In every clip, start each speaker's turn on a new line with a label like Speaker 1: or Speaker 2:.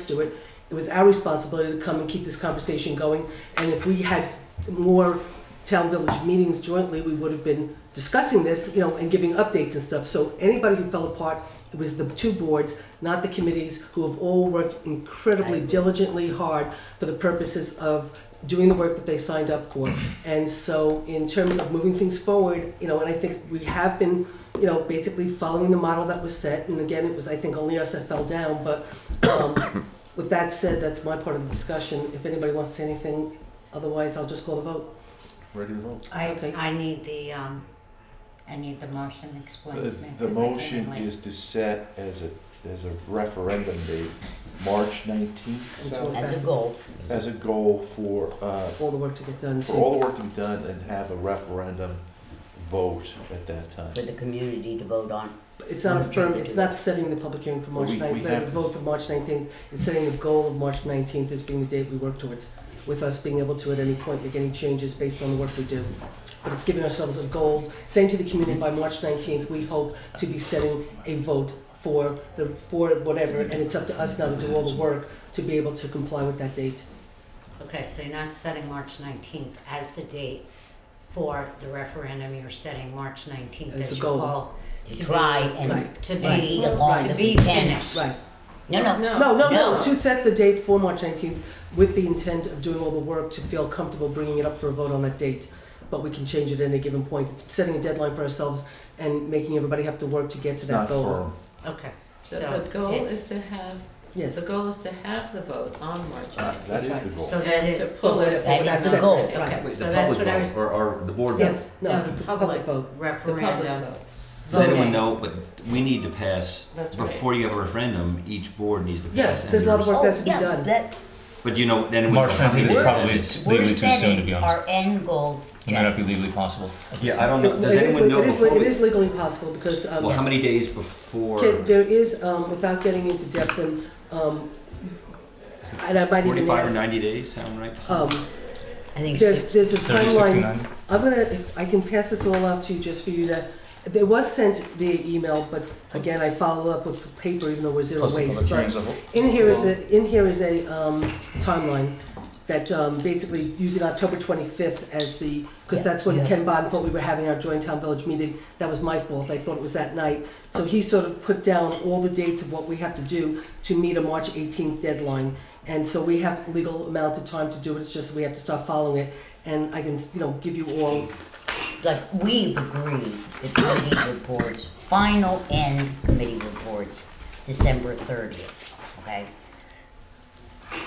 Speaker 1: Stewart. It was our responsibility to come and keep this conversation going. And if we had more town village meetings jointly, we would have been discussing this, you know, and giving updates and stuff. So anybody who fell apart, it was the two boards, not the committees, who have all worked incredibly diligently hard for the purposes of doing the work that they signed up for. And so in terms of moving things forward, you know, and I think we have been, you know, basically following the model that was set. And again, it was, I think, only us that fell down, but, um, with that said, that's my part of the discussion. If anybody wants to say anything, otherwise I'll just call the vote.
Speaker 2: Ready to vote?
Speaker 3: I,
Speaker 1: Okay.
Speaker 3: I need the, um, I need the motion explained
Speaker 2: The,
Speaker 3: to me.
Speaker 2: the
Speaker 3: 'cause I came in
Speaker 2: motion
Speaker 3: late.
Speaker 2: is to set as a, as a referendum date, March nineteenth,
Speaker 1: Until-
Speaker 4: As a goal.
Speaker 2: as a goal for, uh,
Speaker 1: All the work to get done.
Speaker 2: for
Speaker 1: to-
Speaker 2: all the work to be done and have a referendum vote at that time.
Speaker 4: for the community to vote on.
Speaker 1: It's not a firm, it's not setting the public hearing for March
Speaker 2: We- we
Speaker 1: 9th,
Speaker 2: have
Speaker 1: the
Speaker 2: to-
Speaker 1: vote for March 19th. It's setting the goal of March 19th as being the date we work towards, with us being able to at any point make any changes based on the work we do. But it's giving ourselves a goal, saying to the community by March 19th, we hope to be setting a vote for the, for whatever, and it's up to us now to do all the work to be able to comply with that date.
Speaker 3: Okay, so you're not setting March nineteenth as the date for the referendum, you're setting March nineteenth
Speaker 1: As
Speaker 3: as
Speaker 1: a
Speaker 3: your
Speaker 1: goal.
Speaker 3: goal
Speaker 4: To
Speaker 3: To
Speaker 4: try
Speaker 3: be-
Speaker 4: and,
Speaker 1: Right.
Speaker 3: to
Speaker 4: Right.
Speaker 3: be,
Speaker 4: The
Speaker 3: to
Speaker 4: longest
Speaker 3: be
Speaker 4: we can.
Speaker 3: finished.
Speaker 1: Right.
Speaker 4: no, no,
Speaker 1: No, no, no,
Speaker 4: No.
Speaker 1: to set the date for March 19th with the intent of doing all the work to feel comfortable bringing it up for a vote on that date. But we can change it at any given point. It's setting a deadline for ourselves and making everybody have to work to get to
Speaker 2: It's
Speaker 1: that
Speaker 2: not
Speaker 1: goal.
Speaker 2: firm.
Speaker 3: Okay,
Speaker 5: So
Speaker 3: so
Speaker 5: the goal is
Speaker 3: it's,
Speaker 5: to have, the
Speaker 1: Yes.
Speaker 5: goal is to have the vote on March
Speaker 2: Uh,
Speaker 5: ninth.
Speaker 2: That is the goal.
Speaker 3: so that
Speaker 5: And to
Speaker 3: is,
Speaker 5: pull it,
Speaker 1: That
Speaker 4: is the
Speaker 1: separate,
Speaker 4: goal.
Speaker 1: Right.
Speaker 3: okay,
Speaker 6: Wait,
Speaker 3: so
Speaker 6: the
Speaker 3: that's
Speaker 6: public
Speaker 3: what I
Speaker 6: vote
Speaker 3: was,
Speaker 6: Or, or the board vote?
Speaker 1: Yes,
Speaker 3: no,
Speaker 1: no,
Speaker 3: the
Speaker 1: public
Speaker 3: public
Speaker 1: vote.
Speaker 5: the public
Speaker 3: referendum.
Speaker 5: vote.
Speaker 6: Does anyone
Speaker 3: Voting.
Speaker 6: know, but we need to pass,
Speaker 5: That's right.
Speaker 6: before you have a referendum, each board needs to pass.
Speaker 1: Yeah,
Speaker 6: and
Speaker 1: there's a lot of
Speaker 6: yours-
Speaker 1: work that's to be
Speaker 4: Oh, yeah,
Speaker 1: done.
Speaker 4: that,
Speaker 6: But you know, then. we
Speaker 7: March
Speaker 6: don't have
Speaker 7: 19th is
Speaker 6: to-
Speaker 7: probably
Speaker 6: that is-
Speaker 7: Legally
Speaker 4: we're
Speaker 7: too soon, to be
Speaker 4: setting
Speaker 7: honest.
Speaker 4: our end goal.
Speaker 7: It might not be legally possible.
Speaker 6: Yeah, I don't know,
Speaker 1: It
Speaker 6: does
Speaker 1: it is,
Speaker 6: anyone know
Speaker 1: it is,
Speaker 6: before
Speaker 1: it
Speaker 6: we,
Speaker 1: is legally possible because, um,
Speaker 6: well, how many days before?
Speaker 1: Can- There is, um, without getting into depth and, um, and I might even
Speaker 6: Forty-five or
Speaker 1: ask,
Speaker 6: ninety days, sound right to
Speaker 1: um,
Speaker 6: someone?
Speaker 4: I think
Speaker 1: there's,
Speaker 4: six,
Speaker 1: there's a
Speaker 7: 30, 60,
Speaker 1: timeline
Speaker 7: 90.
Speaker 1: I'm gonna, if I can pass this all out to you just for you to, it was sent via email, but again, I follow up with paper even though we're zero
Speaker 7: Plus the
Speaker 1: waste.
Speaker 7: public
Speaker 1: But
Speaker 7: hearings of-
Speaker 1: in here is a, in here is a, um, timeline that, um, basically using October twenty-fifth as the, cause
Speaker 4: Yeah,
Speaker 1: that's when
Speaker 4: yeah.
Speaker 1: Ken Bond thought we were having our joint town village meeting. That was my fault. I thought it was that night. So he sort of put down all the dates of what we have to do to meet a March eighteenth deadline. And so we have legal amount of time to do it. It's just we have to start following it. And I can, you know, give you all
Speaker 4: like, we've agreed, the committee reports, final end committee reports, December thirtieth, okay?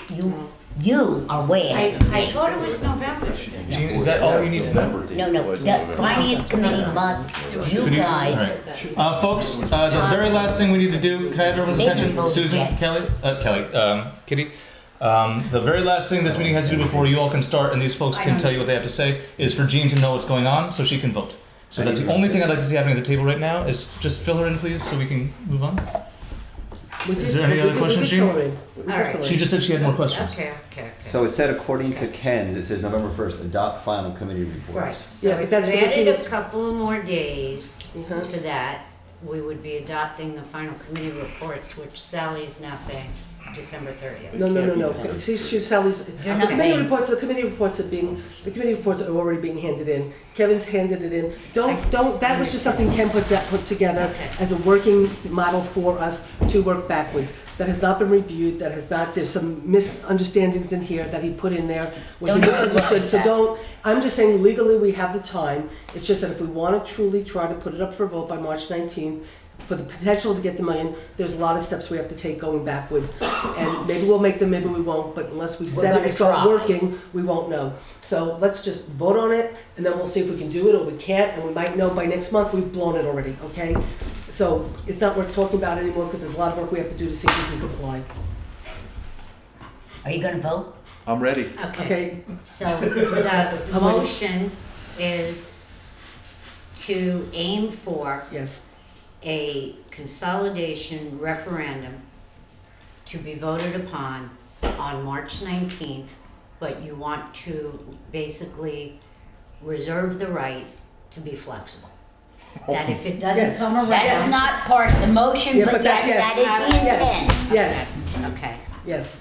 Speaker 4: You, you are way
Speaker 3: I,
Speaker 4: ahead.
Speaker 3: I thought it was November.
Speaker 2: It should be
Speaker 7: Gene,
Speaker 2: before
Speaker 7: is that
Speaker 2: the-
Speaker 7: all we need to know?
Speaker 2: November date,
Speaker 4: No, no,
Speaker 2: but-
Speaker 4: the finance committee must, you
Speaker 7: Could you-
Speaker 4: guys,
Speaker 7: Uh, folks, uh, the very last thing we need to do, can I have everyone's
Speaker 4: Maybe
Speaker 7: attention?
Speaker 4: vote
Speaker 7: Susan,
Speaker 4: yet.
Speaker 7: Kelly, uh, Kelly, um, Kitty. Um, the very last thing this meeting has to do before you all can start and these folks
Speaker 3: I
Speaker 7: can
Speaker 3: don't-
Speaker 7: tell you what they have to say is for Jean to know what's going on so she can vote. So
Speaker 2: I
Speaker 7: that's
Speaker 2: need
Speaker 7: the
Speaker 2: to
Speaker 7: only
Speaker 2: vote.
Speaker 7: thing I'd like to see happening at the table right now is just fill her in, please, so we can move on.
Speaker 1: We
Speaker 7: Is
Speaker 1: did,
Speaker 7: there any
Speaker 1: we
Speaker 7: other
Speaker 1: did-
Speaker 7: questions,
Speaker 1: we did
Speaker 7: Jean?
Speaker 1: fill it in. We did
Speaker 3: All right.
Speaker 1: fill it
Speaker 7: She
Speaker 1: in.
Speaker 7: just said she had more questions.
Speaker 3: Okay, okay, okay.
Speaker 6: So it said according to Ken's, it says November first, adopt final committee reports.
Speaker 3: Right,
Speaker 1: Yeah,
Speaker 3: so
Speaker 1: but
Speaker 3: if you
Speaker 1: that's because he
Speaker 3: added a
Speaker 1: was-
Speaker 3: couple more days
Speaker 1: Uh-huh.
Speaker 3: to that, we would be adopting the final committee reports, which Sally is now saying December thirtieth.
Speaker 1: No, no, no, no. See, she, Sally's,
Speaker 4: You're
Speaker 1: the
Speaker 4: not
Speaker 1: committee
Speaker 4: paying.
Speaker 1: reports, the committee reports are being, the committee reports are already being handed in. Kevin's handed it in. Don't,
Speaker 3: I
Speaker 1: don't, that was just something Ken put, that put together
Speaker 3: Okay.
Speaker 1: as a working model for us to work backwards. That has not been reviewed, that has not, there's some misunderstandings in here that he put in there. where he
Speaker 4: Don't overlook
Speaker 1: misunderstood. So
Speaker 4: that.
Speaker 1: don't, I'm just saying legally, we have the time. It's just that if we want to truly try to put it up for vote by March 19th, for the potential to get the million, there's a lot of steps we have to take going backwards. And maybe we'll make them, maybe we won't, but unless we
Speaker 4: We're
Speaker 1: set it
Speaker 4: gonna
Speaker 1: and start
Speaker 4: try.
Speaker 1: working, we won't know. So let's just vote on it, and then we'll see if we can do it or we can't, and we might know by next month we've blown it already, okay? So it's not worth talking about anymore, because there's a lot of work we have to do to see if we can comply,
Speaker 4: are you gonna vote?
Speaker 2: I'm ready.
Speaker 3: Okay,
Speaker 1: okay?
Speaker 3: so the
Speaker 1: How many?
Speaker 3: motion is to aim for
Speaker 1: Yes,
Speaker 3: a consolidation referendum to be voted upon on March 19th, but you want to basically reserve the right to be flexible. That if it doesn't
Speaker 1: Yes.
Speaker 3: come around.
Speaker 4: That is not part of the motion,
Speaker 1: Yeah,
Speaker 4: but
Speaker 1: but
Speaker 4: that,
Speaker 1: that's- yes.
Speaker 4: that is the
Speaker 3: Yes.
Speaker 4: intent.
Speaker 1: yes,
Speaker 3: Okay,
Speaker 1: Yes.